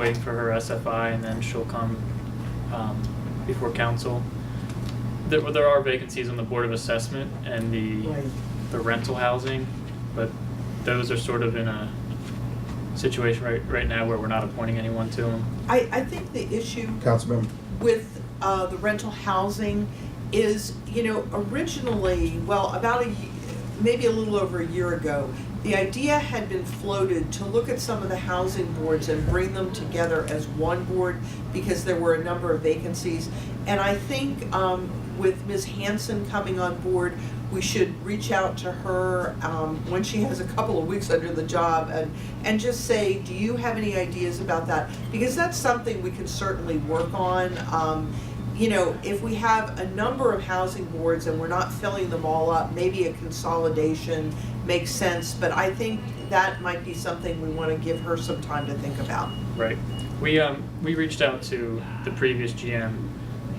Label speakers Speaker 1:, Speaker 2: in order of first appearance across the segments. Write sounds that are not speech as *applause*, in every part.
Speaker 1: waiting for her SFI and then she'll come um, before council. There, there are vacancies on the Board of Assessment and the,
Speaker 2: Right.
Speaker 1: the rental housing, but those are sort of in a situation right, right now where we're not appointing anyone to them.
Speaker 2: I, I think the issue
Speaker 3: Councilmember.
Speaker 2: with uh, the rental housing is, you know, originally, well, about a, ye- maybe a little over a year ago, the idea had been floated to look at some of the housing boards and bring them together as one board because there were a number of vacancies. And I think um, with Ms. Hanson coming on board, we should reach out to her um, when she has a couple of weeks under the job and, and just say, do you have any ideas about that? Because that's something we can certainly work on. Um, you know, if we have a number of housing boards and we're not filling them all up, maybe a consolidation makes sense. But I think that might be something we want to give her some time to think about.
Speaker 1: Right. We, um, we reached out to the previous GM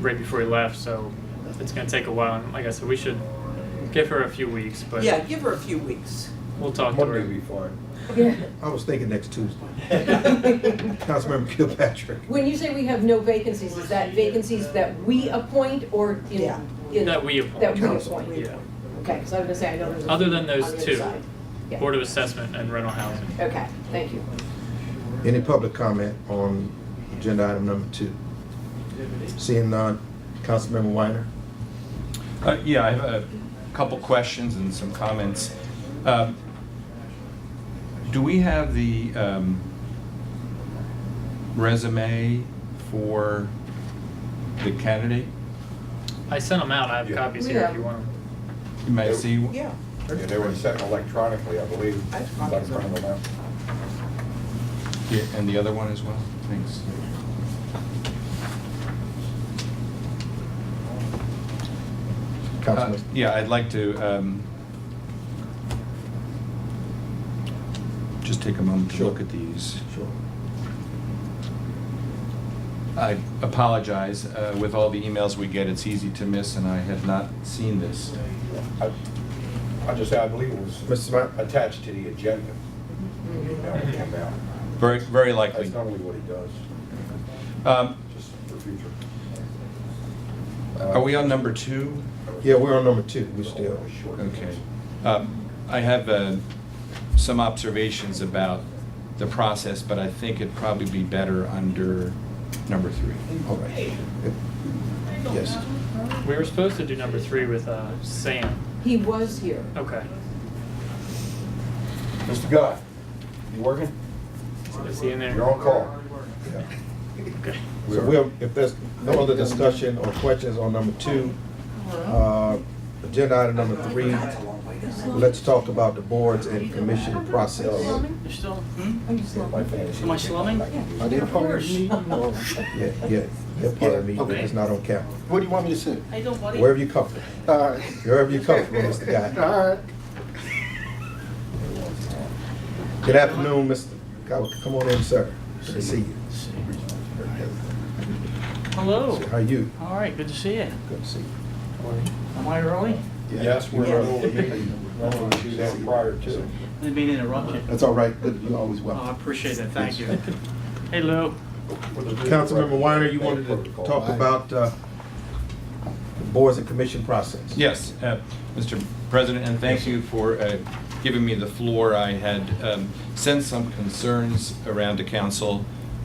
Speaker 1: right before he left, so it's gonna take a while. And like I said, we should give her a few weeks, but
Speaker 2: Yeah, give her a few weeks.
Speaker 1: we'll talk to her.
Speaker 4: Monday will be fine.
Speaker 3: I was thinking next Tuesday. *laughs*
Speaker 5: When
Speaker 3: Councilmember Kilpatrick.
Speaker 5: you say we have no vacancies, is that vacancies that we appoint or in?
Speaker 2: Yeah.
Speaker 5: in-
Speaker 1: That we appoint.
Speaker 5: That we
Speaker 3: Council.
Speaker 5: appoint?
Speaker 1: Yeah.
Speaker 5: Okay, because I was gonna say, I know there's. a
Speaker 1: Other than those
Speaker 5: on the other
Speaker 1: two.
Speaker 5: side. Yeah.
Speaker 1: Board of Assessment and rental housing.
Speaker 5: Okay, thank you.
Speaker 3: Any public comment on agenda item number two? Seeing none, Councilmember Weiner.
Speaker 6: Uh, Yeah, I have a couple questions and some comments. Um, Do we have the um, resume for the candidate?
Speaker 1: I sent them out. I have
Speaker 4: Yeah.
Speaker 1: copies
Speaker 5: We
Speaker 1: here if
Speaker 5: have.
Speaker 1: you want them.
Speaker 6: You may see.
Speaker 2: Yeah.
Speaker 4: Yeah, they were sent electronically, I believe.
Speaker 2: I thought it was-
Speaker 4: Electronic now.
Speaker 6: Yeah, And the other one as well? Thanks. Uh,
Speaker 3: Councilman,
Speaker 6: Uh, Yeah, I'd like to um, just take a moment to
Speaker 3: Sure.
Speaker 6: look at these.
Speaker 3: sure.
Speaker 6: I apologize. uh, With all the emails we get, it's easy to miss, and I had not seen this.
Speaker 4: I- I just, I believe it
Speaker 3: Mr.
Speaker 4: was
Speaker 3: Smart.
Speaker 4: attached to the agenda. The email that came out.
Speaker 6: Very, very
Speaker 4: That's
Speaker 6: likely.
Speaker 4: normally what he does,
Speaker 6: Um,
Speaker 4: just for future.
Speaker 6: Are we on number two?
Speaker 3: Yeah, we're on number two, we're still.
Speaker 6: Okay. Um, I have uh, some observations about the process, but I think it'd probably be better under number three.
Speaker 3: All right. Yes.
Speaker 1: We were supposed to do number three with uh, Sam.
Speaker 5: He was here.
Speaker 1: Okay.
Speaker 4: Mr. Guy, you working?
Speaker 1: Is he in there?
Speaker 4: You're on call.
Speaker 3: Yeah.
Speaker 1: Okay.
Speaker 3: So we'll, if there's no other discussion or questions on number two, uh, agenda item number three, let's talk about the boards and commission process.
Speaker 7: You're still,
Speaker 8: Hmm?
Speaker 5: I'm just
Speaker 4: My
Speaker 5: laughing.
Speaker 4: fantasy.
Speaker 7: Am I slumming?
Speaker 8: Are they a part of the meeting or?
Speaker 3: Yeah, yeah, they're part of me, but it's not on camera.
Speaker 8: What do you want me to say?
Speaker 7: I don't worry.
Speaker 3: Wherever you come from,
Speaker 8: All right.
Speaker 3: wherever you come
Speaker 8: *laughs*
Speaker 3: from, Mr. Guy.
Speaker 8: All right.
Speaker 3: Good afternoon, Mr. Guy, come on in, sir. Good to see you.
Speaker 7: Hello.
Speaker 3: How are you?
Speaker 7: All right, good to see you.
Speaker 3: Good to see you.
Speaker 7: Am I early?
Speaker 4: Yes, we're on the meeting, normally we do that prior to.
Speaker 7: Didn't mean to interrupt you.
Speaker 8: That's all right, but you're always
Speaker 7: Oh, I
Speaker 8: welcome.
Speaker 7: appreciate it, thank you. Hey, Lou.
Speaker 3: Councilmember Weiner, you wanted to talk about uh, the boards and commission process?
Speaker 6: Yes, uh, Mr. President, and thank you for uh, giving me the floor. I had um, sent some concerns around to council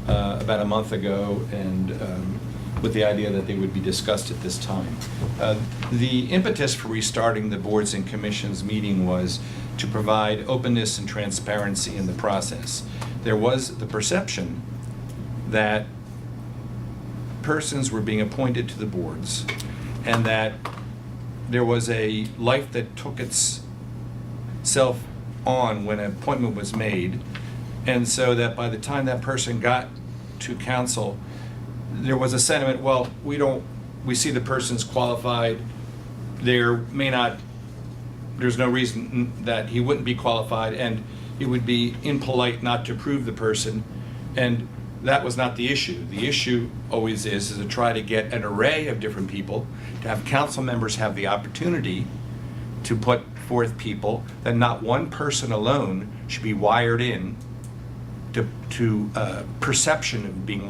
Speaker 6: uh, about a month ago, and um, with the idea that they would be discussed at this time. Uh, The impetus for restarting the boards and commissions meeting was to provide openness and transparency in the process. There was the perception that persons were being appointed to the boards, and that there was a life that took itself on when an appointment was made, and so that by the time that person got to council, there was a sentiment, well, we don't, we see the person's qualified, there may not, there's no reason that he wouldn't be qualified, and it would be impolite not to approve the person, and that was not the issue. The issue always is, is to try to get an array of different people, to have council members have the opportunity to put forth people, that not one person alone should be wired in to, to uh, perception of being